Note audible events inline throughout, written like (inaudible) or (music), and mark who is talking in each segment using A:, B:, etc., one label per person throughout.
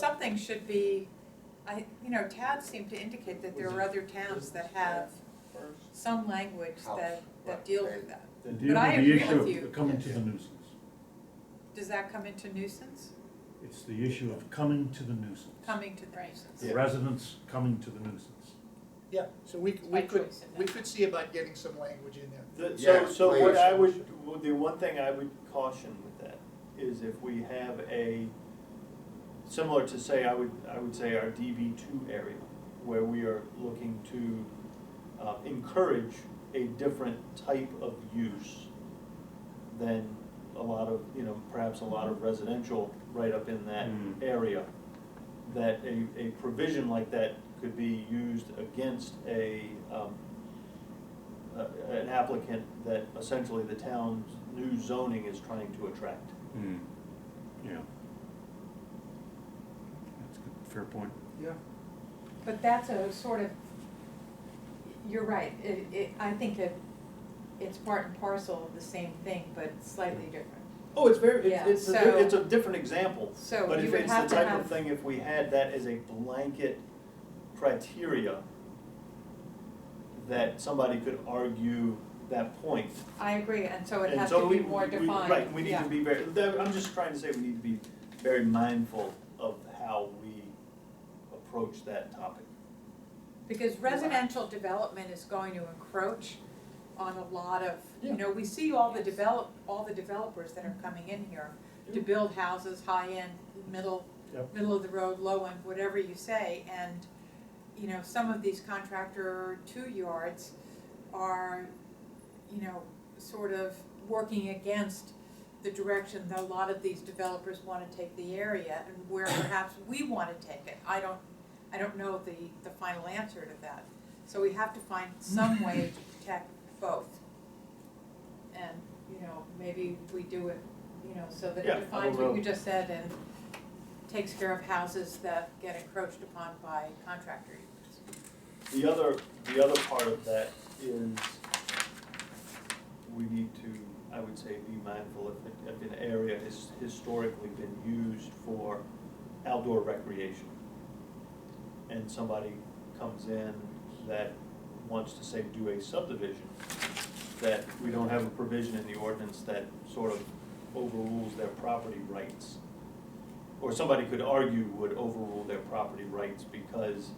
A: Something should be, I, you know, Tad seemed to indicate that there are other towns that have some language that, that deal with that.
B: They deal
A: I
B: with the
A: agree
B: issue
A: with
B: of
A: you.
B: Coming to the nuisance.
A: Does that come into nuisance,
B: It's the issue of coming to the nuisance.
A: coming to the nuisance?
B: The residents coming to the nuisance.
C: Yeah, so we,
A: It's
C: we
A: by
C: could,
A: choice in
C: we
A: that.
C: could see about getting some language in there.
D: The-
E: Yeah,
D: So, so what
E: please.
D: I would, well, the one thing I would caution with that is if we have a, similar to say, I would, I would say our DB two area, where we are looking to uh, encourage a different type of use than a lot of, you know, perhaps a lot of residential right up in that
B: Mm.
D: area, that a, a provision like that could be used against a, um, a- an applicant that essentially the town's new zoning is trying to attract.
B: Hmm. Yeah. That's a good, fair point.
C: Yeah.
A: But that's a sort of, you're right, it, it, I think it, it's part and parcel of the same thing, but slightly different.
D: Oh, it's very,
A: Yeah,
D: it's, it's, a
A: so-
D: di- it's a different example,
A: So
D: but
A: you
D: if
A: would
D: it's the
A: have to
D: type of
A: have-
D: thing, if we had that as a blanket criteria, that somebody could argue that point.
A: I agree, and so it
D: And
A: has
D: so
A: to be
D: we-
A: more
D: we- we-
A: defined,
D: Right, we need
A: yeah.
D: to be very, that- I'm just trying to say we need to be very mindful of how we approach that topic.
A: Because residential development is going to encroach on a lot of, you
D: Yeah.
A: know, we see all the develop, all the developers that are coming in here to
D: Yeah.
A: build houses, high-end, middle,
B: Yep.
A: middle of the road, low-end, whatever you say, and, you know, some of these contractor two-yards are, you know, sort of working against the direction that a lot of these developers wanna take the area and
D: (coughs)
A: where perhaps we wanna take it. I don't, I don't know the, the final answer to that. So we have to find some way
D: (coughs)
A: to protect both. And, you know, maybe we do it, you know, so that
D: Yeah,
A: it defines what
D: although-
A: you just said and takes care of houses that get encroached upon by contractor units.
D: The other, the other part of that is we need to, I would say, be mindful if, it- if an area has historically been used for outdoor recreation. And somebody comes in that wants to say do a subdivision, that we don't have a provision in the ordinance that sort of overrules their property rights. Or somebody could argue would overrule their property rights because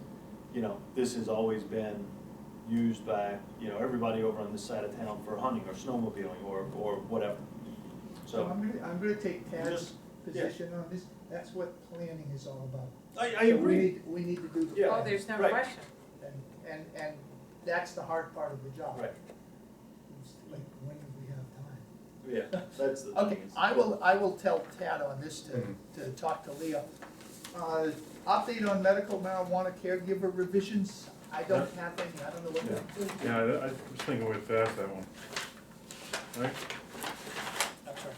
D: you know, this has always been used by, you know, everybody over on this side of town for hunting or snowmobiling or, or whatever.
C: So
D: So,
C: I'm gonna, I'm gonna take Tad's
D: Just- yeah.
C: position on this, that's what planning is all about.
D: I, I
C: So we
D: agree,
C: need- We need to do the
D: Yeah.
A: Oh,
C: planning,
A: there's no
D: right.
A: question.
C: and, and, and that's the hard part of the job.
D: right,
C: It's Like, when do we have time?
D: yeah, that's the thing.
C: Okay,
D: is-
C: I will, I will tell Tad on this
E: Mhm.
C: to, to talk to Leo. Uh, update on medical marijuana caregiver revisions, I don't have any, I don't know what
B: Yeah.
C: to do.
B: Yeah, I I was thinking way fast, that one. Right?
C: I'm sorry.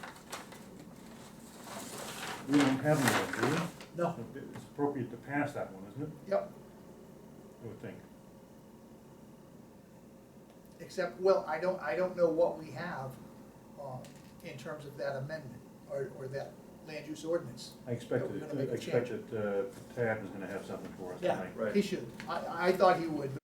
B: We don't have any, do
C: No,
B: we? It's appropriate to pass that one, isn't it?
C: yep,
B: I would think.
C: except, well, I don't, I don't know what we have, um, in terms of that amendment, or, or that land use ordinance.
B: I expected,
C: we're gonna make a
B: I expected uh, Tad was gonna have something for us
C: Yeah.
B: tonight.
D: Right.
C: He should, I, I thought he would,